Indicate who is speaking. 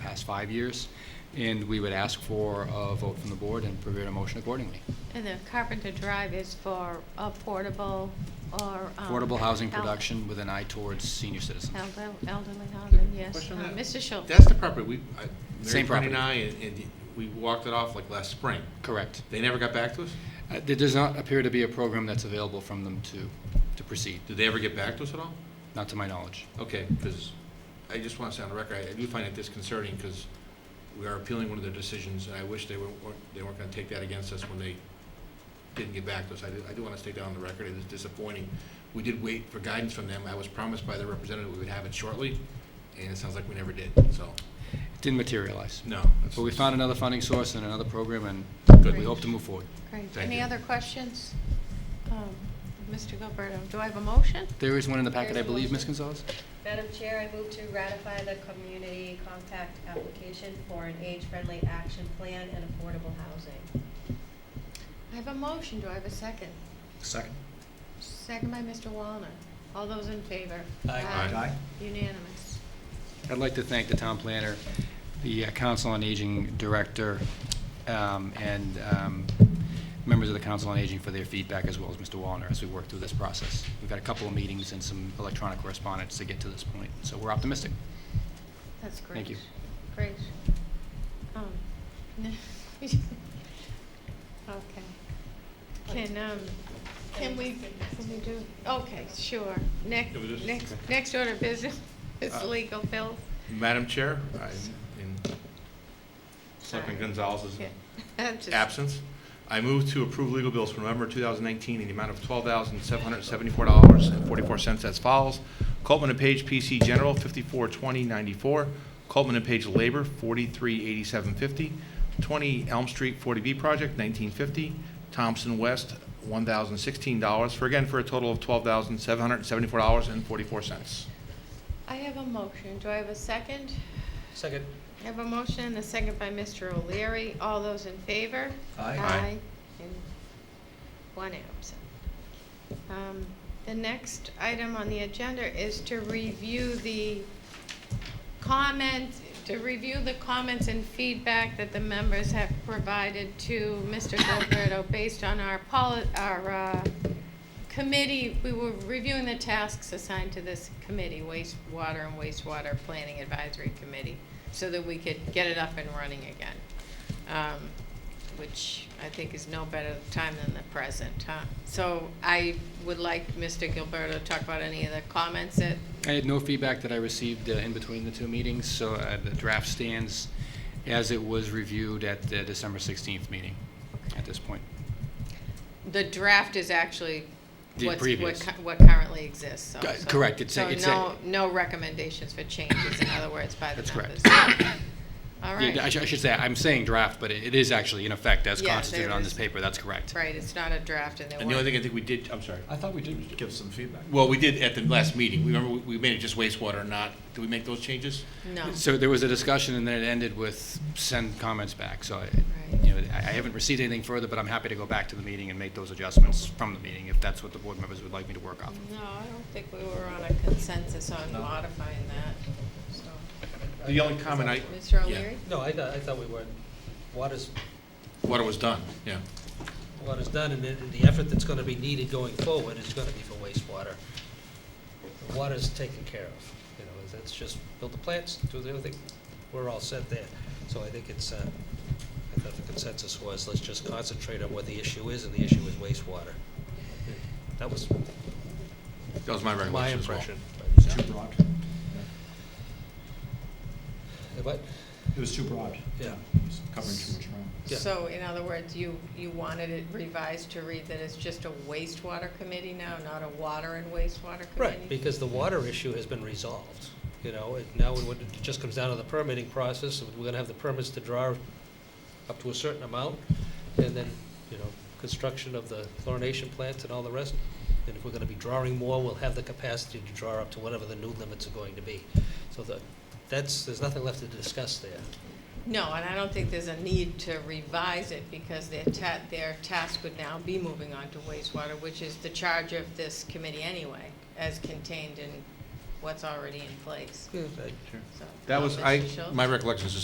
Speaker 1: last five years, and we would ask for a vote from the board and prepare a motion accordingly.
Speaker 2: And the Carpenter Drive is for affordable or. um,
Speaker 1: Affordable housing
Speaker 2: el-
Speaker 1: production with an eye towards senior citizens.
Speaker 2: elder- Elderly housing, yes.
Speaker 3: Question
Speaker 2: Uh,
Speaker 3: on that?
Speaker 2: Mr. Schultz.
Speaker 3: That's the property, we, I, Mary
Speaker 1: Same
Speaker 3: Connie and I,
Speaker 1: property.
Speaker 3: and, and we walked it off like last spring.
Speaker 1: Correct.
Speaker 3: They never got back to us?
Speaker 1: Uh, There does not appear to be a program that's available from them to, to proceed,
Speaker 3: Did they ever get back to us at all?
Speaker 1: not to my knowledge.
Speaker 3: Okay, because I just want to say on the record, I I do find it disconcerting because we are appealing one of their decisions, and I wish they weren't, weren't- they weren't going to take that against us when they didn't get back to us. I do, I do want to state that on the record, it is disappointing. We did wait for guidance from them, I was promised by their representative we would have it shortly, and it sounds like we never did, so,
Speaker 1: It didn't materialize.
Speaker 3: no. that's-
Speaker 1: But we found another funding source and another program, and
Speaker 3: Good.
Speaker 1: we hope to move forward.
Speaker 2: Great.
Speaker 3: Thank
Speaker 2: Any
Speaker 3: you.
Speaker 2: other questions? Um, Mr. Gilberto, do I have a motion?
Speaker 1: There is one in the packet, I
Speaker 4: There's a
Speaker 1: believe, Ms.
Speaker 4: motion.
Speaker 1: Gonzalez?
Speaker 4: Madam Chair, I move to ratify the community compact application for an age-friendly action plan and affordable housing.
Speaker 2: I have a motion, do I have a second?
Speaker 5: Second.
Speaker 2: Second by Mr. Wallner. All those in favor?
Speaker 3: Aye.
Speaker 2: Unanimous.
Speaker 1: I'd like to thank the town planner, the uh, Council on Aging Director, um, and um, members of the Council on Aging for their feedback, as well as Mr. Wallner, as we work through this process. We've had a couple of meetings and some electronic correspondence to get to this point, so we're optimistic.
Speaker 2: That's great.
Speaker 1: Thank you.
Speaker 2: Great. Um, Okay. Can, um, can we, can we do, okay, sure. Next,
Speaker 3: Can we just-
Speaker 2: next,
Speaker 3: okay.
Speaker 2: next order of business is
Speaker 3: Uh,
Speaker 2: legal bills.
Speaker 3: Madam Chair, I- in Selectman
Speaker 2: Sorry.
Speaker 3: Gonzalez's
Speaker 2: Yeah. I'm just-
Speaker 3: absence, I move to approve legal bills for November 2019 in the amount of $12,774.44 as follows. Coleman and Page PC General, 542094. Coleman and Page Labor, 438750. 20 Elm Street 40B Project, 1950. Thompson West, $1,016, for again, for a total of $12,774.44.
Speaker 2: I have a motion. Do I have a second?
Speaker 5: Second.
Speaker 2: I have a motion and a second by Mr. O'Leary. All those in favor?
Speaker 5: Aye.
Speaker 3: Aye.
Speaker 2: And one absent. Um, The next item on the agenda is to review the comments, to review the comments and feedback that the members have provided to Mr. Gilberto based on our poli, our, uh, committee, we were reviewing the tasks assigned to this committee, wastewater and wastewater planning advisory committee, so that we could get it up and running again. Um, which I think is no better time than the present, huh? So I would like Mr. Gilberto to talk about any of the comments that,
Speaker 1: I had no feedback that I received uh, in between the two meetings, so uh, the draft stands as it was reviewed at the December 16th meeting at this point.
Speaker 2: the draft is actually
Speaker 1: The
Speaker 2: what's, what,
Speaker 1: previous.
Speaker 2: cu- what currently exists, so.
Speaker 1: Uh,
Speaker 2: so-
Speaker 1: correct. It's a- it's a-
Speaker 2: So no, no recommendations for changes, in other words, by the
Speaker 1: That's correct.
Speaker 2: members. All right.
Speaker 1: Yeah, I should, I should say, I'm saying draft, but it it is actually in effect as
Speaker 2: Yeah,
Speaker 1: constituted
Speaker 2: there
Speaker 1: on
Speaker 2: is.
Speaker 1: this paper, that's correct.
Speaker 2: Right, it's not a draft and there
Speaker 3: And the only
Speaker 2: weren't-
Speaker 3: thing I think we did, I'm sorry.
Speaker 5: I thought we did give some feedback.
Speaker 3: Well, we did at the last meeting. We Remember, we we made it just wastewater, not, did we make those changes?
Speaker 2: No.
Speaker 1: So there was a discussion, and then it ended with send comments back, so, I-
Speaker 2: Right.
Speaker 1: you know, I I haven't received anything further, but I'm happy to go back to the meeting and make those adjustments from the meeting, if that's what the board members would like me to work off.
Speaker 2: No, I don't think we were on a consensus on
Speaker 5: No.
Speaker 2: modifying that, so.
Speaker 3: The only comment I,
Speaker 2: Mr.
Speaker 3: Yeah.
Speaker 2: O'Leary?
Speaker 6: No, I thought, I thought we were, water's,
Speaker 3: water was done, yeah.
Speaker 6: water's done, and the, the effort that's gonna be needed going forward is gonna be for wastewater. The Water's taken care of, you know, that's just build the plants, do the other thing, we're all set there. So I think it's, uh, I thought the consensus was, let's just concentrate on what the issue is, and the issue is wastewater. That was
Speaker 3: That was my
Speaker 6: my
Speaker 3: recollection as well.
Speaker 6: impression.
Speaker 5: It's too broad.
Speaker 6: But,
Speaker 5: It was too broad.
Speaker 6: Yeah.
Speaker 5: It was Covering too much ground.
Speaker 6: Yeah.
Speaker 2: So in other words, you, you wanted it revised to read that it's just a wastewater committee now, not a water and wastewater committee?
Speaker 6: Right, because the water issue has been resolved, you know, it now it would- it just comes down to the permitting process, and we're gonna have the permits to draw up to a certain amount, and then, you know, construction of the chlorination plants and all the rest. And if we're gonna be drawing more, we'll have the capacity to draw up to whatever the new limits are going to be. So the, that's, there's nothing left to discuss there.
Speaker 2: No, and I don't think there's a need to revise it because their ta, their task would now be moving on to wastewater, which is the charge of this committee anyway, as contained in what's already in place,
Speaker 6: Yeah, I-
Speaker 2: so.
Speaker 3: That was, I,
Speaker 2: Mr. Schultz?
Speaker 3: my recollection is the